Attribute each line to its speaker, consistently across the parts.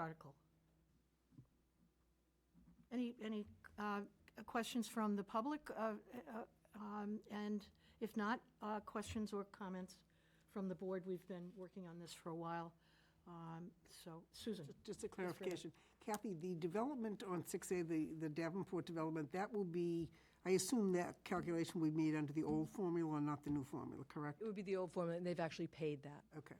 Speaker 1: article. Any, any uh, questions from the public? Uh, uh, um, And if not, uh, questions or comments from the board? We've been working on this for a while. Um, So, Susan?
Speaker 2: Just a clarification. Kathy, the development on 6A, the the Davenport development, that will be, I assume that calculation we made under the old formula and not the new formula, correct?
Speaker 3: It would be the old formula, and they've actually paid that.
Speaker 2: Okay.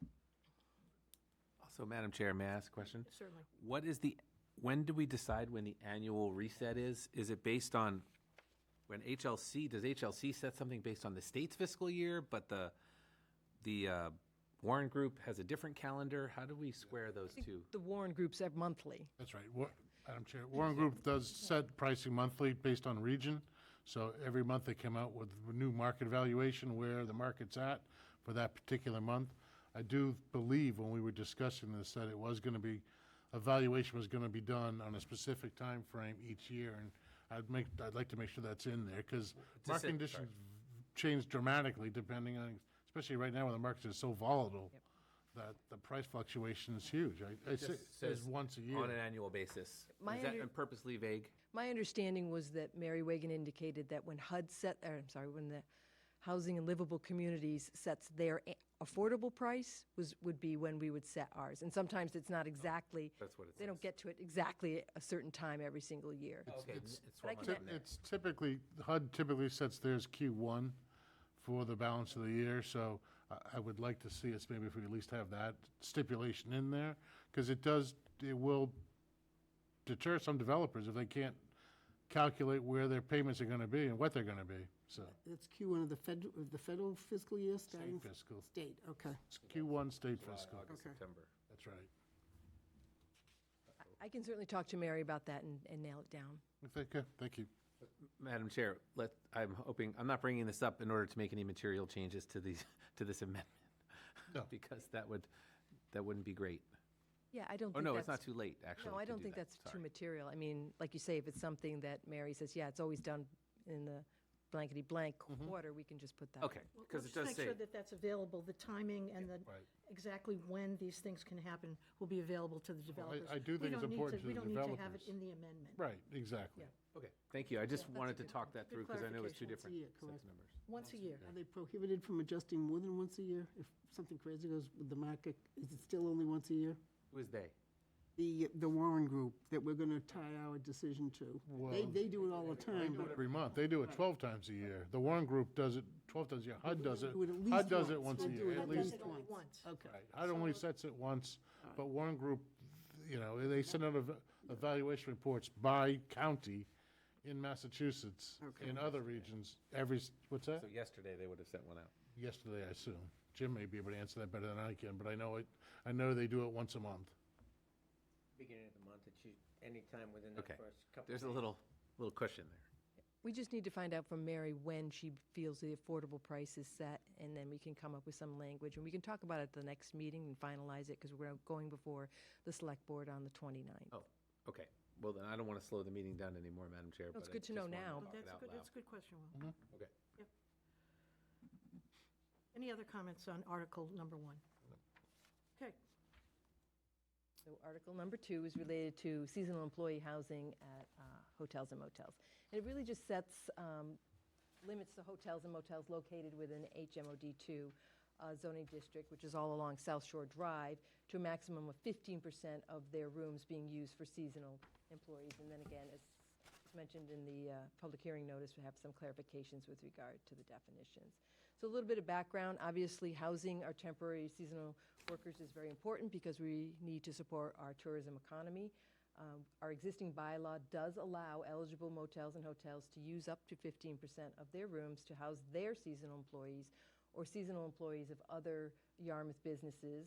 Speaker 4: So, Madam Chair, may I ask a question?
Speaker 1: Certainly.
Speaker 4: What is the, when do we decide when the annual reset is? Is it based on, when HLC, does HLC set something based on the state's fiscal year, but the, the uh, Warren Group has a different calendar? How do we square those two?
Speaker 3: The Warren Groups are monthly.
Speaker 5: That's right. Wa- Madam Chair, Warren Group does set pricing monthly based on region. So every month they come out with a new market valuation where the market's at for that particular month. I do believe when we were discussing this that it was going to be, a valuation was going to be done on a specific time frame each year. And I'd make, I'd like to make sure that's in there because market
Speaker 4: it,
Speaker 5: conditions change dramatically depending on, especially right now when the markets are so volatile that the price fluctuation is huge. I, I say,
Speaker 4: Says
Speaker 5: it's once a year.
Speaker 4: On an annual basis.
Speaker 3: My
Speaker 4: Is that
Speaker 3: under-
Speaker 4: purposely vague?
Speaker 3: My understanding was that Mary Wagon indicated that when HUD set, or I'm sorry, when the Housing and Livable Communities sets their a- affordable price was, would be when we would set ours. And sometimes it's not exactly.
Speaker 4: Oh, That's what it
Speaker 3: They don't
Speaker 4: says.
Speaker 3: get to it exactly a certain time every single year.
Speaker 4: Okay, it's
Speaker 3: But I
Speaker 4: one
Speaker 3: can-
Speaker 4: on there.
Speaker 5: It's typically, HUD typically sets theirs Q1 for the balance of the year, so I I would like to see us, maybe if we at least have that stipulation in there, because it does, it will deter some developers if they can't calculate where their payments are going to be and what they're going to be, so.
Speaker 2: That's Q1 of the federal, the federal fiscal year starting?
Speaker 5: fiscal.
Speaker 2: State, okay.
Speaker 5: It's Q1 state fiscal,
Speaker 4: August, September.
Speaker 5: that's right.
Speaker 3: I can certainly talk to Mary about that and, and nail it down.
Speaker 5: Thank you, thank you.
Speaker 4: Madam Chair, let, I'm hoping, I'm not bringing this up in order to make any material changes to these, to this amendment.
Speaker 5: No.
Speaker 4: Because that would, that wouldn't be great.
Speaker 3: Yeah, I don't
Speaker 4: Oh,
Speaker 3: think
Speaker 4: no,
Speaker 3: that's.
Speaker 4: it's not too late, actually.
Speaker 3: No, I
Speaker 4: to
Speaker 3: don't
Speaker 4: do
Speaker 3: think
Speaker 4: that.
Speaker 3: that's too
Speaker 4: Sorry.
Speaker 3: material. I mean, like you say, if it's something that Mary says, yeah, it's always done in the blankety blank quarter, we can just put that.
Speaker 4: Mm-hmm. Okay, because it
Speaker 1: Just
Speaker 4: does
Speaker 1: make
Speaker 4: say,
Speaker 1: sure that that's available, the timing and the,
Speaker 5: right.
Speaker 1: exactly when these things can happen will be available to the developers.
Speaker 5: I do
Speaker 1: We
Speaker 5: think it's
Speaker 1: don't need
Speaker 5: important to
Speaker 1: We
Speaker 5: the
Speaker 1: don't need to have it
Speaker 5: developers.
Speaker 1: in the amendment.
Speaker 5: Right, exactly.
Speaker 4: okay, thank you. I just wanted to talk that
Speaker 1: good
Speaker 4: through because I know it's two
Speaker 1: clarification.
Speaker 2: Yeah, correct.
Speaker 4: different sets of numbers.
Speaker 1: Once a year.
Speaker 2: Are they prohibited from adjusting more than once a year? If something crazy goes with the market, is it still only once a year?
Speaker 4: Who is they?
Speaker 2: The, the Warren Group that we're going to tie our decision to. They, they do it all the time, but
Speaker 5: Every month, they do it 12 times a year. The Warren Group does it 12 times a year, HUD does it,
Speaker 2: Do it at least
Speaker 5: HUD does it
Speaker 2: once.
Speaker 5: once a
Speaker 2: We'll do it
Speaker 5: year,
Speaker 2: at
Speaker 5: at
Speaker 1: Does
Speaker 5: least.
Speaker 1: it only once.
Speaker 2: Okay.
Speaker 5: Right. HUD only sets it once, but Warren Group, you know, they send out eva- evaluation reports by county in Massachusetts, in other regions, every, s- what's
Speaker 4: So
Speaker 5: that?
Speaker 4: yesterday, they would have sent one out.
Speaker 5: Yesterday, I assume. Jim may be able to answer that better than I can, but I know it, I know they do it once a month.
Speaker 6: beginning of the month, it's u- anytime within the
Speaker 4: Okay,
Speaker 6: first couple.
Speaker 4: there's a
Speaker 6: days.
Speaker 4: little, little cushion there.
Speaker 3: We just need to find out from Mary when she feels the affordable price is set, and then we can come up with some language, and we can talk about it at the next meeting and finalize it, because we're going before the select board on the 29th.
Speaker 4: Oh, okay. Well, then I don't want to slow the meeting down anymore, Madam Chair.
Speaker 3: it's
Speaker 4: but I
Speaker 3: good to
Speaker 4: just
Speaker 3: know
Speaker 4: wanted
Speaker 3: now.
Speaker 4: talk it
Speaker 1: That's a
Speaker 4: out
Speaker 1: good,
Speaker 4: loud.
Speaker 1: that's a good question, Will.
Speaker 4: Okay.
Speaker 1: Any other comments on article number one? Okay,
Speaker 3: So Article number two is related to seasonal employee housing at uh, hotels and motels. And it really just sets, um, limits the hotels and motels located within HMOD2 uh, zoning district, which is all along South Shore Drive, to a maximum of 15% of their rooms being used for seasonal employees. And then again, as it's mentioned in the uh, public hearing notice, we have some clarifications with regard to the definitions. So a little bit of background, obviously, housing our temporary seasonal workers is very important because we need to support our tourism economy. Um, Our existing bylaw does allow eligible motels and hotels to use up to 15% of their rooms to house their seasonal employees or seasonal employees of other Yarmouth businesses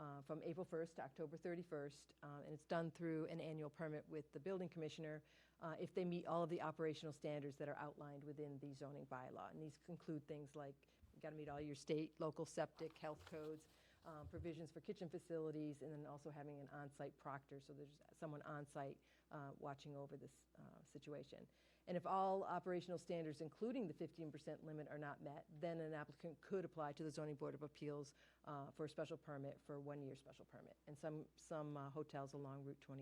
Speaker 3: uh, from April 1st to October 31st, uh, and it's done through an annual permit with the building commissioner uh, if they meet all of the operational standards that are outlined within the zoning bylaw. And these include things like, you got to meet all your state, local septic, health codes, um, provisions for kitchen facilities, and then also having an on-site proctor, so there's someone on-site uh, watching over this uh, situation. And if all operational standards, including the 15% limit, are not met, then an applicant could apply to the Zoning Board of Appeals uh, for a special permit, for a one-year special permit. And some, some uh, hotels along Route 20